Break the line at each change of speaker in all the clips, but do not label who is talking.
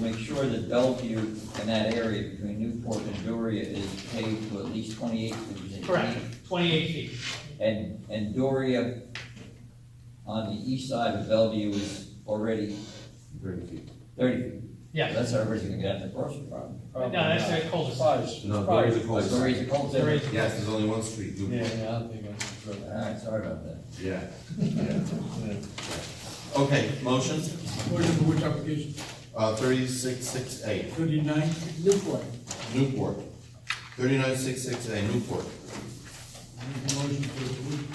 make sure that Bellevue and that area between Newport and Doria is paved to at least twenty-eight feet.
Correct, twenty-eight feet,
And, and Doria on the east side of Bellevue is already
Thirty feet.
thirty feet.
yeah.
That's our original, gonna have to cross the problem.
Oh,
No, that's a cul-de-sac.
Five.
No, there is a
But
cul-de-sac.
Doria's a cul
There
de
is-
Yes, there's only one street,
Yeah,
Newport.
yeah, I think that's right.
Alright, sorry about that.
Yeah, yeah. Okay, motion,
Order for which application?
uh, thirty-six, six, eight,
Thirty-nine Newport.
Newport. Thirty-nine, six, six, eight, Newport.
Make a motion to approve.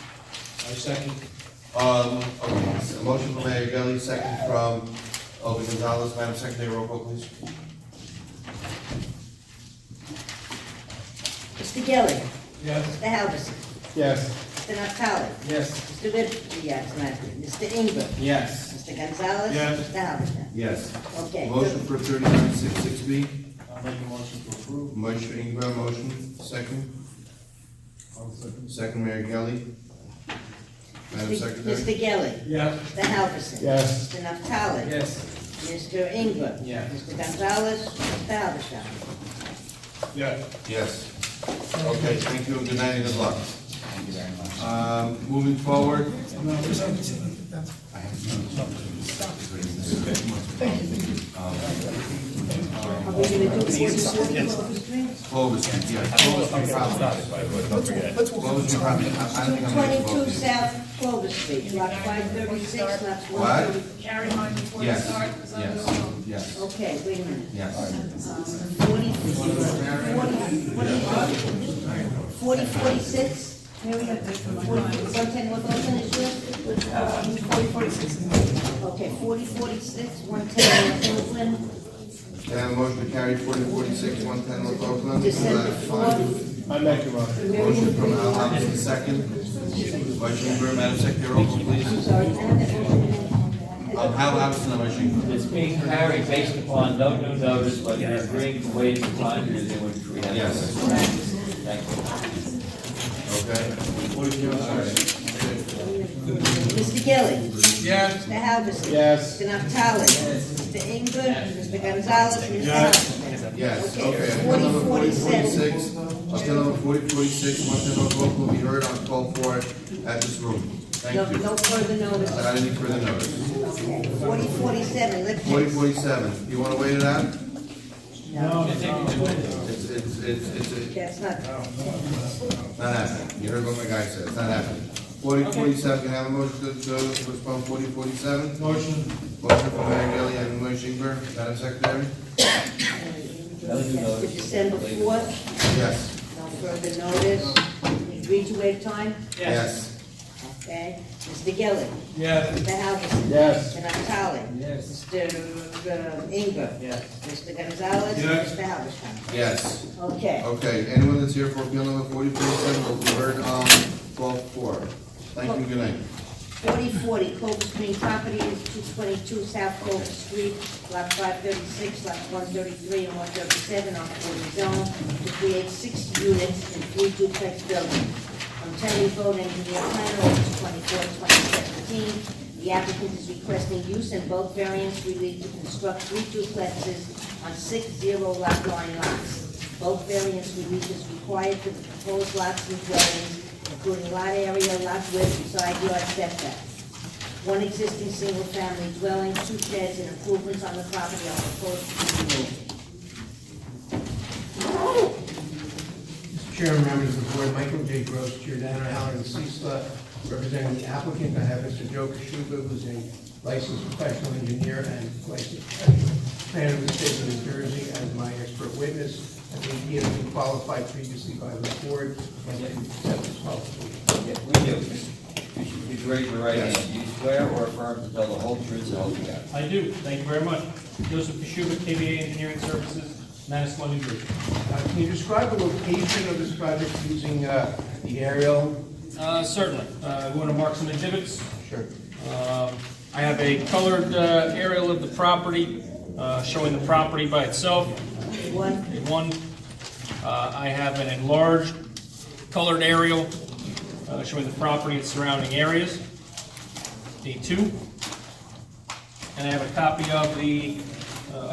I second.
Um, okay, so motion from Mayor Gelli, second from Obi Gonzalez, Madam Secretary, roll call, please.
Mr. Gelli.
Yes.
Mr. Halverson.
Yes.
Mr. Natale.
Yes.
Mr. Ritz, yes, not, Mr. Ingram.
Yes.
Mr. Gonzalez.
Yes.
Mr. Halverson.
Yes.
Okay.
Motion for thirty-nine, six, six B,
I'll make a motion to approve.
motion Ingber, motion, second,
I'll second.
second Mayor Gelli. Madam Secretary?
Mr. Gelli.
Yes.
Mr. Halverson.
Yes.
Mr. Natale.
Yes.
Mr. Ingram.
Yes.
Mr. Gonzalez. Mr. Halverson.
Yes.
Yes. Okay, thank you, and good night and good luck.
Thank you very much.
Um, moving forward. Clover Street, yeah, Clover
Are we gonna do forty-four?
Street property. Clover Street property, I I don't think I'm gonna vote.
Twenty-two South Clover Street, lot five thirty-six, lots one.
What?
thirty-
Carry mine before you
Yes,
start, because I'm
yes,
going.
yes,
Okay, wait a minute.
yes.
Um, Forty, forty, forty, forty-six? Here we go. One ten North Ocean is yours?
Forty, forty-six is mine.
Okay, forty, forty-six, one ten North Oakland,
Can I have a motion to carry forty forty-six, one ten North Oakland?
December
Motion
fourth.
I make a motion.
Uh, from Al Hamid, second. Motion for Madam Secretary, roll call, please.
Sorry, I have that motion.
Um, Al Hamid, motion.
It's being carried based upon no new notice, but you're agreeing to wait until time here, then which we have.
Yes.
Thank you.
Okay.
Mr. Gilli.
Yes.
Mr. Halverson.
Yes.
Mr. Naftali. Mr. Ingber. Mr. Gonzalez. Mr. Halverson.
Yes,
Okay,
okay. Appeal
forty,
number forty
forty-seven.
forty-six, appeal number forty forty-six, one ten North Oakland, will be heard on call for at this room.
No,
Thank you.
no further notice.
Without any further notice.
Forty, forty-seven,
Forty
Lipton.
forty-seven, you wanna wait it out?
No.
It's, it's, it's, it's, it's
That's not,
Not happening, you heard what my guy said, it's not happening. Forty forty-seven, can I have a motion to, to postpone forty forty-seven?
Motion.
Motion from Mayor Gelli and Mayor Shingber, Madam Secretary?
that's for December fourth,
Yes,
no further notice. We Agreed to waive time?
yes,
Okay, Mr. Gilli.
Yes.
Mr. Halverson.
Yes.
Mr. Naftali.
Yes.
Mr. um, Ingber.
Yes.
Mr. Gonzalez.
Yes.
Mr. Halverson.
yes.
Okay.
Okay, anyone that's here for appeal number forty forty-seven will be heard on twelve four. Thank you, good night.
Forty forty Clover Street Properties, two twenty-two South Clover Street, lot five thirty-six, lot one thirty-three and one thirty-seven on forty zone, to create six units and three duplex buildings. On Terry Road, engineer planner, August twenty-four, twenty seventeen, the applicant is requesting use and bulk variance relief to construct three duplexes on six zero lot line lots. Bulk variance relief is required for the proposed lots and dwellings, including lot area, lot width, and side yard setback. One existing single-family dwelling, two sheds, and improvements on the property are proposed to be removed.
Chair and members of the board, Michael J. Gross, Giordano Allen and Cecil, representing the applicant. I have Mr. Joe Kishuba, who's a licensed professional engineer and licensed professional planner of the state of New Jersey as my expert witness. I think he has been qualified previously by the board and then accepted his qualification.
Yeah, we do. You should be great in writing. Do you swear or affirm to tell the whole truth and the whole truth?
I do, thank you very much. Joseph Kishuba, KBA Engineering Services, Manasquan, New Jersey.
Uh, Can you describe the location of this project using uh, the aerial?
Uh, certainly, uh, we wanna mark some exhibits.
Sure.
Um, I have a colored uh, aerial of the property, uh, showing the property by itself.
One,
A One, uh, I have an enlarged colored aerial uh, showing the property and surrounding areas. D two. And I have a copy of the uh,